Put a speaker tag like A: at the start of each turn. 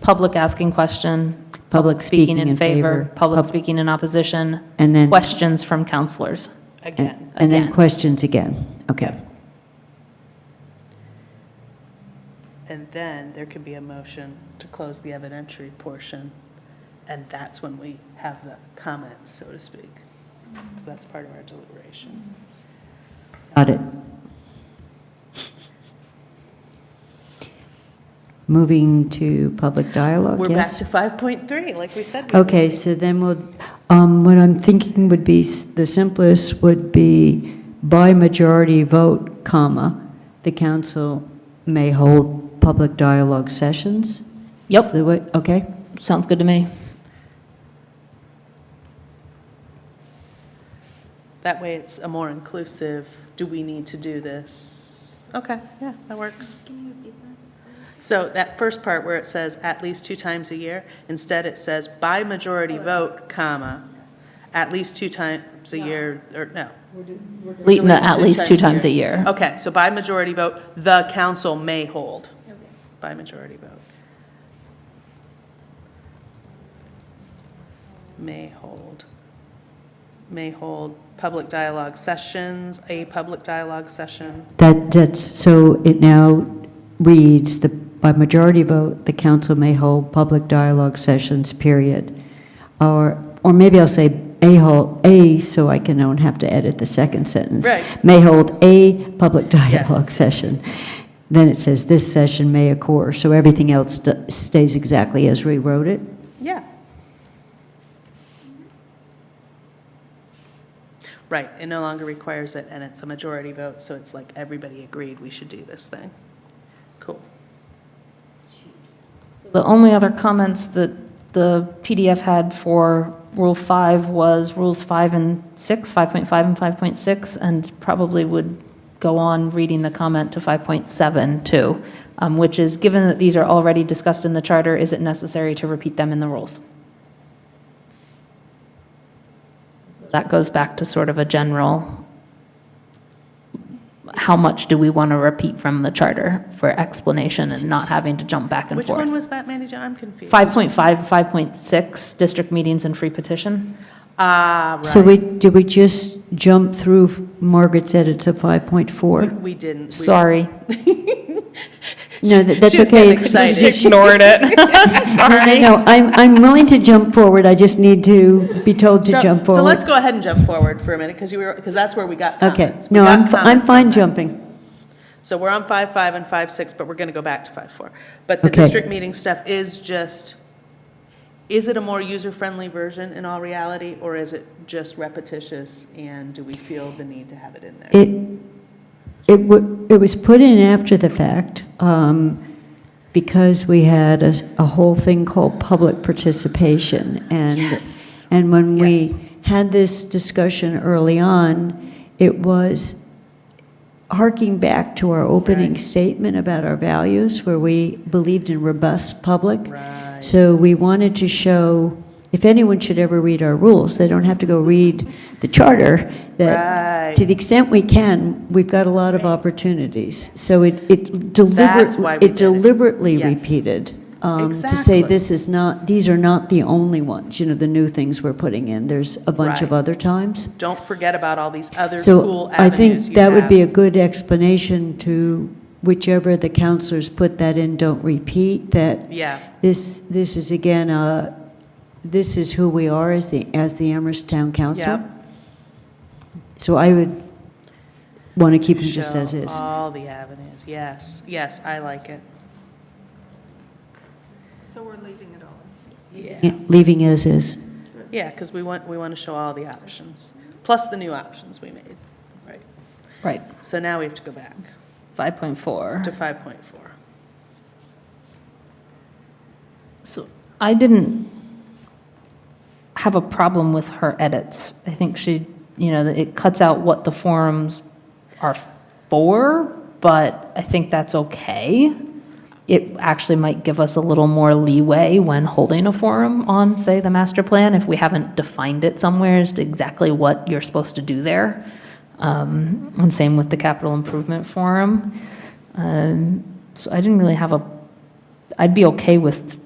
A: public asking question,
B: Public
A: speaking in favor, public
B: pub-
A: speaking in opposition,
B: And then,
A: questions from counselors.
B: and and then
A: again.
B: questions again. Okay.
C: And then there could be a motion to close the evidentiary portion, and that's when we have the comments, so to speak. Because that's part of our deliberation.
B: Got it. Moving to public dialogue,
C: We're back
B: yes? Oh.
C: to 5.3, like we said. we would.
B: Okay, so then we'll, um, what I'm thinking would be, s- the simplest would be by majority vote, comma, the council may hold public dialogue sessions?
A: Yep.
B: Is the way- Okay,
A: Sounds good to me.
C: That way it's a more inclusive, do we need to do this? Okay, yeah, that works. So that first part where it says at least two times a year, instead it says by majority vote, comma, at least two times a year, or no.
A: Le- no, At least two times a year.
C: Okay, so by majority vote, the council may hold. By majority vote. May hold. May hold public dialogue sessions, a public dialogue session.
B: that, that's, so it now reads, the, by majority vote, the council may hold public dialogue sessions, period. Or, or maybe I'll say a hold, a, so I can, don't have to edit the second sentence.
C: Right.
B: May hold a public dialogue
C: Yes.
B: session. Then it says, this session may occur, so everything else st- stays exactly as we wrote it?
C: Yeah. Right, it no longer requires it, and it's a majority vote, so it's like everybody agreed we should do this thing. Cool.
A: The only other comments that the PDF had for Rule 5 was Rules 5 and 6, 5.5 and 5.6, and probably would go on reading the comment to 5.7 too, um, which is, given that these are already discussed in the charter, is it necessary to repeat them in the rules? That goes back to sort of a general, how much do we want to repeat from the charter for explanation and not having to jump back and
C: Which
A: forth?
C: one was that, Mandy Jo? I'm confused.
A: 5.5, 5.6, district meetings and free petition.
C: Ah, right.
B: So we, did we just jump through Margaret's edits of 5.4?
C: We didn't. We-
A: Sorry.
B: No, that- that's
C: She was
B: okay.
C: getting
B: It's-
C: excited.
B: it's-
A: Ignored it. Sorry.
B: No, I'm, I'm willing to jump forward, I just need to be told to
C: So-
B: jump forward.
C: So let's go ahead and jump forward for a minute, because you were, because that's where we got
B: Okay,
C: comments. We
B: no,
C: got
B: I'm, I'm
C: comments on
B: fine
C: that.
B: jumping.
C: So we're on five five and five six, but we're going to go back to five four. But the
B: Okay.
C: district meeting stuff is just, is it a more user-friendly version in all reality, or is it just repetitious, and do we feel the need to have it in there?
B: It, it wa, it was put in after the fact, um, because we had a, a whole thing called public participation, and.
C: Yes.
B: And when we
C: Yes.
B: had this discussion early on, it was harking back to our opening
C: Right.
B: statement about our values, where we believed in robust public.
C: Right.
B: So we wanted to show, if anyone should ever read our rules, they don't have to go read the charter, that
C: Right.
B: to the extent we can, we've got a lot of opportunities. So it, it
C: why
B: deliberately,
C: we
B: it
C: did it.
B: deliberately
C: Yes.
B: repeated, um, to say
C: Exactly.
B: this this is not, these are not the only ones, you know, the new things we're putting in. There's a bunch of
C: Right.
B: other times.
C: Don't forget about all these other
B: So
C: cool
B: I
C: avenues
B: think
C: you
B: that would be a
C: have.
B: good explanation to whichever the counselors put that in, don't repeat, that
C: Yeah,
B: this, this is again, uh, this is who we are as the, as the Amherst Town Council.
C: Yep.
B: So I would want to keep it just
C: Show
B: as is.
C: all the avenues, yes, yes, I like it.
D: So we're leaving it all.
C: Yeah.
B: Yeah, Leaving as is.
C: Yeah, because we want, we want to show all the options, plus the new options we made. Right.
A: Right,
C: So now we have to go back to
A: 5.4.
C: 5.4.
A: So I didn't have a problem with her edits. I think she, you know, it cuts out what the forums are for, but I think that's okay. It actually might give us a little more leeway when holding a forum on, say, the master plan, if we haven't defined it somewhere as to exactly what you're supposed to do there. Um, And same with the capital improvement forum. Um, So I didn't really have a, I'd be okay with